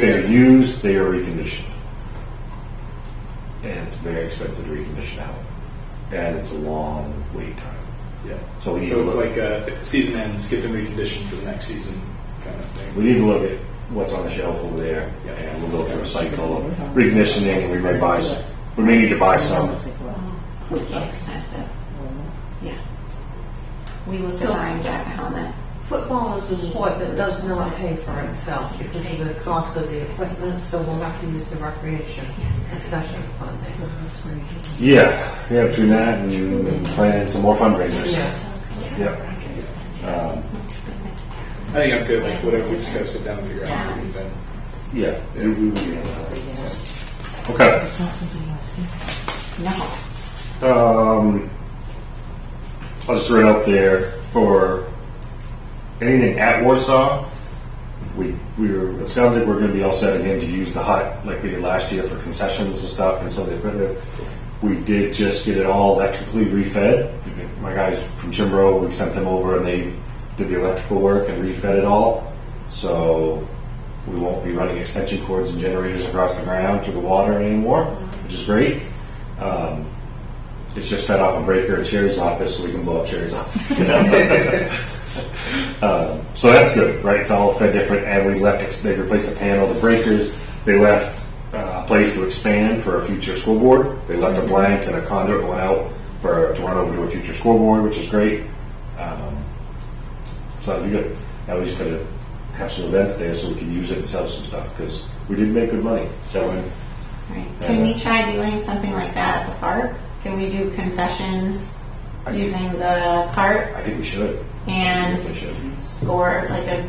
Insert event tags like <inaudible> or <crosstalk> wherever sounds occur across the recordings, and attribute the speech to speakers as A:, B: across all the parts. A: They are used, they are reconditioned. And it's very expensive to recondition out. And it's a long wait time.
B: Yeah.
A: So we need
B: So
A: to
B: it's
A: look,
B: like a season ends, get them reconditioned for the next season kind of thing.
A: we need to look at what's on the shelf over there.
B: Yeah.
A: And we'll go through a cycle of reconditioning and we may buy, s- we may need to buy some.
C: pretty expensive. Yeah. We look at buying Jack a helmet.
D: Football is a sport that does not pay for itself because of the cost of the equipment, so we'll have to use the recreation concession funding.
A: Yeah, yeah, between that and planning some more fundraisers. Yep. Um,
B: I think I'm good, like whatever, we just gotta sit down and figure out how to do that.
A: Yeah. we- we- we- Okay.
C: It's not something you want to see. No.
A: Um, I'll just throw it out there for anything at Warsaw. We we were, it sounds like we're going to be all set again to use the hut like we did last year for concessions and stuff and some of the equipment. We did just get it all electrically refed. My guys from Chimbro, we sent them over and they did the electrical work and refed it all. So we won't be running extension cords and generators across the ground to the water anymore, which is great. It's just fed off a breaker at Sherry's office, so we can blow up Sherry's office. <laughs> Um, so that's good, right? It's all fed different, and we left. Ex- they replaced the panel, the breakers. They left uh, a place to expand for a future school board. They left a blank and a conduit went out for to run over to a future school board, which is great. Um, so that'd be good. Now we just gotta have some events there so we can use it and sell some stuff because we did make good money selling.
C: Right. Can we try doing something like that at the park? Can we do concessions using the cart
A: I think we should.
C: and Mm-hmm.
A: we should.
C: score, like a,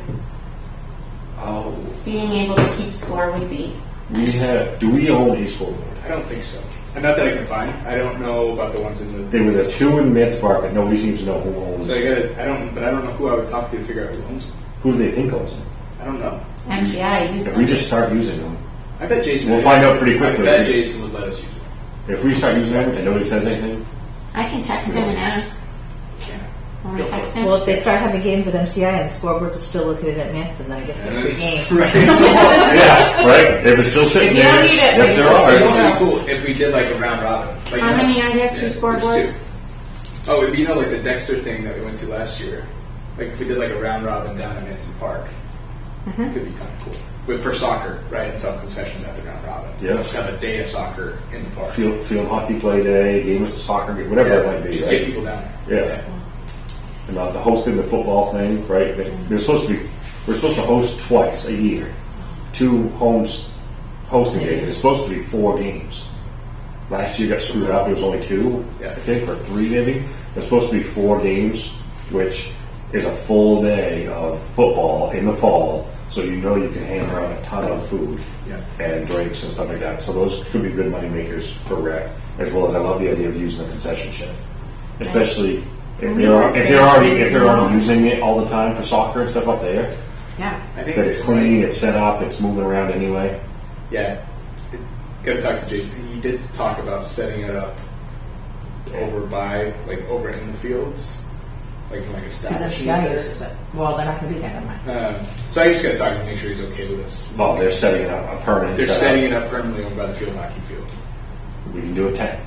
A: Oh.
C: being able to keep score would be
A: We have, do we own a school board?
B: I don't think so. And not that I can find. I don't know about the ones in the.
A: There was a two in Mance Park that nobody seems to know who owns.
B: So I gotta, I don't, but I don't know who I would talk to to figure out who owns. them.
A: Who do they think owns them?
B: I don't know.
C: MCI use
A: If we
C: them.
A: just start using them,
B: I bet Jason.
A: We'll find out pretty quickly.
B: I bet Jason would let us use it.
A: if we start using them and nobody says
E: <laughs>
A: anything,
C: I can text him and ask.
B: Yeah.
C: When we text him.
E: Well, if they start having games at MCI and the scoreboards are still located at Manson, then I guess they're
B: <laughs>
E: free game.
A: yeah, right? If it's still sitting
E: If you
A: there,
E: don't need it,
A: yes, there
B: It would
A: are.
B: be cool if we did like a round robin. Like,
C: How
B: you know-
C: many are there? Two
B: Yeah, there's
C: scoreboards?
B: two. Oh, it'd be, you know, like the Dexter thing that we went to last year. Like if we did like a round robin down in Manson Park,
C: Mm-hmm.
B: could be kind of cool. But for soccer, right, and some concessions at the round robin.
A: Yeah.
B: Just have a day of soccer in the park.
A: Field, field hockey play day, game of soccer, game, whatever it might be.
B: just
A: right?
B: get people down
A: Yeah.
B: there.
A: And uh, the hosting the football thing, right? They- They're supposed to be, we're supposed to host twice a year, two homes hosting days. It's supposed to be four games. Last year got screwed up. It was only two,
B: Yeah.
A: I think, or three maybe. It's supposed to be four games, which is a full day of football in the fall. So you know you can hand around a ton of food
B: Yeah.
A: and drinks and stuff like that. So those could be good money makers for rec, as well as I love the idea of using the concession shed, especially if they're if they're already if they're already using it all the time for soccer and stuff up there.
C: Yeah.
B: I think
A: That it's clean, it's set up, it's moving around anyway.
B: Yeah. Gotta talk to Jason. He did talk about setting it up over by, like over in the fields, like like
E: Because
B: establishment
E: MCI
B: there.
E: uses it. Well, they're not going to be there, never mind.
B: Um, so I just gotta talk to him, make sure he's okay with us.
A: Well, they're setting it up a permanent.
B: They're
A: setup.
B: setting it up permanently over by the field hockey field.
A: We can do a tent,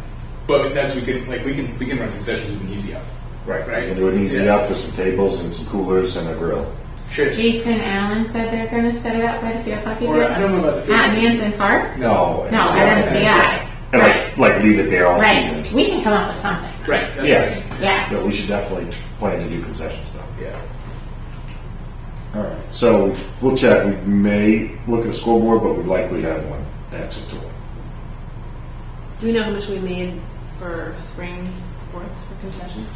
B: But that's we can like we can we can run concessions with an easy up.
A: right?
B: Right.
A: We can do an easy
B: Yeah.
A: up with some tables and some coolers and a grill.
B: Sure.
C: Jason Allen said they're going to set it up by the field hockey
B: Or I don't
C: field.
B: know about the field.
C: At Manson Park?
A: No,
C: No, at MCI.
A: And like like leave it there all
C: Right.
A: season.
C: We can come up with something.
B: Right. That's
A: Yeah.
B: what I mean.
C: Yeah.
A: But we should definitely plan to do concession stuff.
B: Yeah.
A: All right, so we'll check, we may look at a scoreboard, but we likely have one, access to one.
F: Do we know how much we made for spring sports for concession?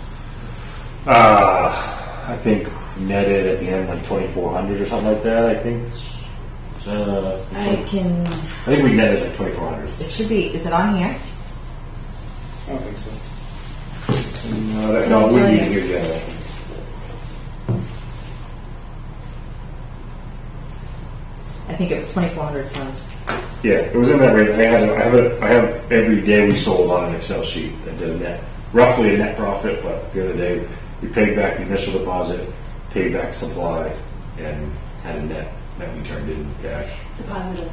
A: Uh, I think netted at the end like twenty-four hundred or something like that, I think. Uh,
E: I can.
A: I think we netted like twenty-four hundred.
E: It should be. Is it on here?
B: I don't think so.
A: No, that- no, it wouldn't be here yet.
E: I think it was 2,400 tons.
A: Yeah, it was in that range, I had, a- I have, a- I have every day we sold on an Excel sheet that did a net, roughly a net profit, but the other day, we paid back the initial deposit, paid back supply, and had a net.
G: that we turned in cash.
A: Deposited.